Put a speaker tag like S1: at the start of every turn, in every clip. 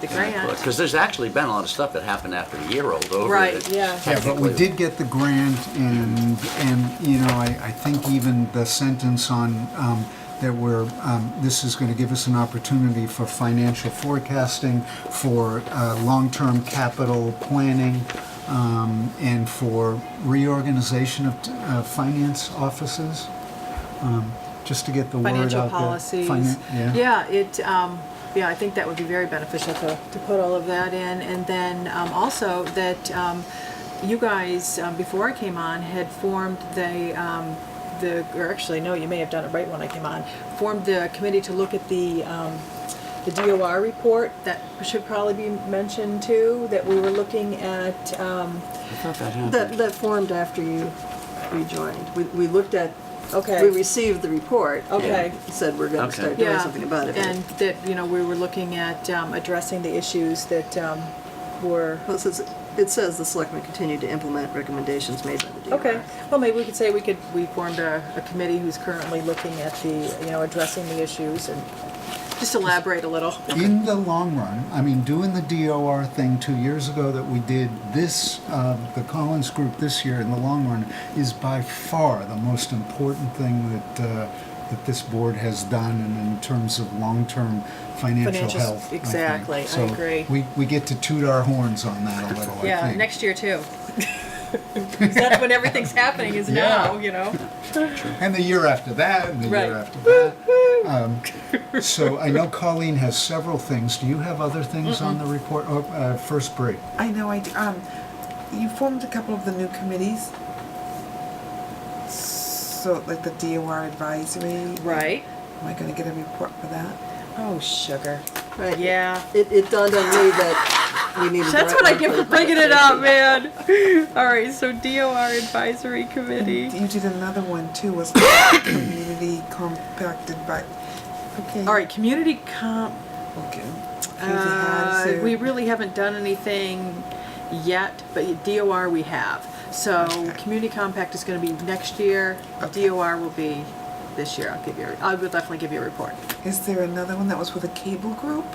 S1: The grant.
S2: Because there's actually been a lot of stuff that happened after the year rolled over.
S1: Right,
S2: that-
S1: yeah.
S3: Yeah, but we did get the grant and, and, you know, I, I think even the sentence on, um, that we're, um, this is gonna give us an opportunity for financial forecasting, for, uh, long-term capital planning, um, and for reorganization of, uh, finance offices, um, just to get the word out there.
S1: Financial policies.
S3: Finan- Yeah,
S1: Yeah, it, um, yeah, I think that would be very beneficial to, to put all of that in. And then um, also that um, you guys, um, before I came on, had formed the, um, the, or actually, no, you may have done it right when I came on, formed the committee to look at the, um, the DOR report that should probably be mentioned too, that we were looking at, um,
S2: I thought that
S4: That,
S2: happened.
S4: that formed after you rejoined. We, we looked at,
S1: okay.
S4: we received the report. and
S1: Okay.
S4: Said we're gonna
S2: Okay.
S4: start doing
S1: Yeah,
S4: something about it.
S1: And that, you know, we were looking at um, addressing the issues that um, were,
S4: Well, it says, it says the selectmen continue to implement recommendations made by the DOR.
S1: okay, well, maybe we could say we could, we formed a, a committee who's currently looking at the, you know, addressing the issues and just elaborate a little.
S3: in the long run, I mean, doing the DOR thing two years ago that we did, this, uh, the Collins Group this year, in the long run, is by far the most important thing that, uh, that this board has done and in terms of long-term financial
S1: Financial s-
S3: health. I think.
S1: exactly, I
S3: So
S1: agree.
S3: we, we get to toot our horns on that a little, I think.
S1: Yeah, next year too. 'Cause That's when everything's happening is now,
S3: Yeah.
S1: you know?
S3: And the year after that, and the
S1: Right.
S3: year after that. Um, So I know Colleen has several things. Do you have other things on the report? Oh, uh, first break.
S5: I know, I, d- um, you formed a couple of the new committees. So, like the DOR advisory.
S1: Right.
S5: Am I gonna get a report for that?
S1: Oh, sugar.
S4: Right.
S1: Yeah.
S4: It, it dawned on me that we needed. the
S1: That's
S4: right
S1: what I
S4: word
S1: get
S4: the
S1: for bringing it up, man. All right, so DOR Advisory
S5: And
S1: Committee.
S5: You did another one too, was like community compacted by, okay.
S1: All right, community comp,
S5: Okay.
S1: uh, we really haven't done anything yet, but DOR we have. So community compact is gonna be next year,
S5: Okay.
S1: DOR will be this year, I'll give you, I will definitely give you a report.
S5: Is there another one that was with a cable group?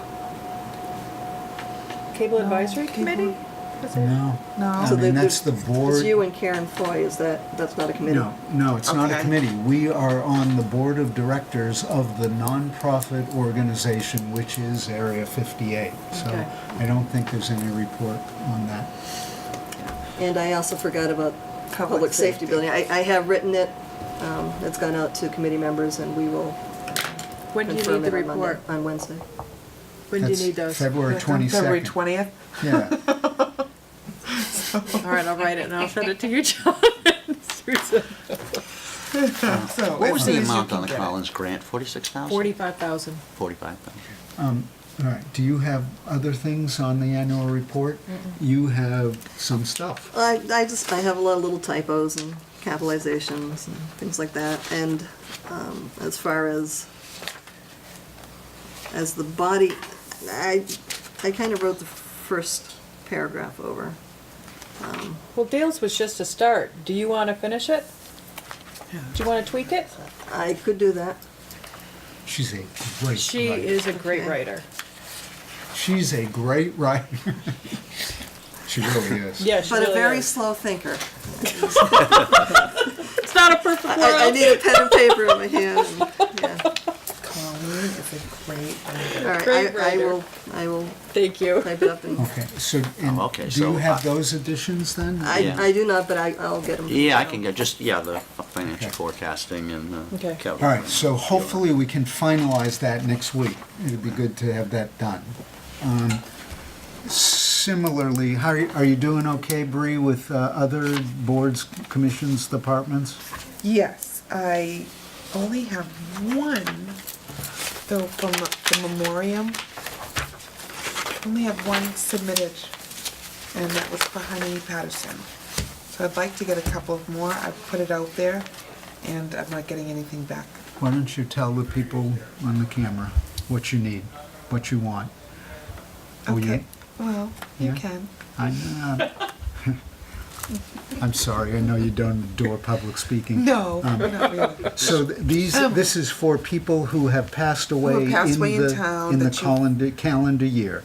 S1: Cable
S5: No, Advisory cable- Committee?
S3: No.
S5: No.
S3: I
S4: So
S3: mean,
S4: the-
S3: that's the
S4: the-
S3: board.
S4: It's you and Karen Foy, is that, that's not a committee?
S3: No, no, it's not a
S5: Okay.
S3: committee. We are on the board of directors of the nonprofit organization, which is Area 58.
S1: Okay.
S3: So I don't think there's any report on that.
S4: And I also forgot about
S5: Public
S4: public safety
S5: safety.
S4: building. I, I have written it, um, it's gone out to committee members and we will
S1: When do you
S4: confirm
S1: need the
S4: it on Monday,
S1: report?
S4: on Wednesday.
S1: When do you
S3: That's
S1: need those? All
S3: February
S5: Like on February
S3: 22nd.
S5: twentieth?
S3: Yeah.
S1: right, I'll write it and I'll send it to you, John. Susan.
S5: So.
S2: What was
S5: as soon
S2: the
S5: as you
S2: amount
S5: can
S2: on the
S5: get it.
S2: Collins grant? Forty-six thousand?
S1: Forty-five thousand.
S2: Forty-five thousand.
S3: All right, do you have other things on the annual report? You have some stuff.
S4: I, I just, I have a lot of little typos and capitalizations and things like that, and, um, as far as, as the body, I, I kind of wrote the first paragraph over.
S1: Well, Dale's was just a start. Do you wanna finish it? Do you wanna tweak it?
S4: I could do that.
S3: She's a great
S1: She
S3: writer.
S1: is a great
S4: Okay.
S1: writer.
S3: She's a great writer. She really is.
S1: Yeah, she
S4: But a
S1: really
S4: very
S1: is.
S4: slow thinker.
S1: It's not a perfect world.
S4: I, I need a pen and paper in my hand, and, yeah.
S5: Colleen is a great.
S4: All right,
S1: Great
S4: I, I
S1: writer.
S4: will, I will
S1: Thank you.
S4: type it up, and,
S3: Okay, so,
S2: Oh, okay,
S3: and do you
S2: so I-
S3: have those additions then?
S4: I,
S2: Yeah.
S4: I do not, but I, I'll get them.
S2: Yeah, I can get just, yeah, the financial
S3: Okay.
S2: forecasting and uh,
S1: Okay.
S2: capital.
S3: All right, so hopefully we can finalize that next week. It'd be good to have that done. Um, Similarly, how are you, are you doing okay, Bree, with uh, other boards, commissions, departments?
S5: Yes, I only have one, though, from the memoriam. Only have one submitted, and that was for Honey Patterson. So I'd like to get a couple of more. I've put it out there, and I'm not getting anything back.
S3: Why don't you tell the people on the camera what you need, what you want? Will you-
S5: Okay, well, you
S3: Yeah.
S5: can.
S3: I'm, uh, I'm sorry, I know you don't adore public speaking.
S5: No, not really.
S3: So th- these, this is for people who have passed away
S5: Um, passed away in
S3: the,
S5: town
S3: in the
S5: that you-
S3: calendar, calendar year.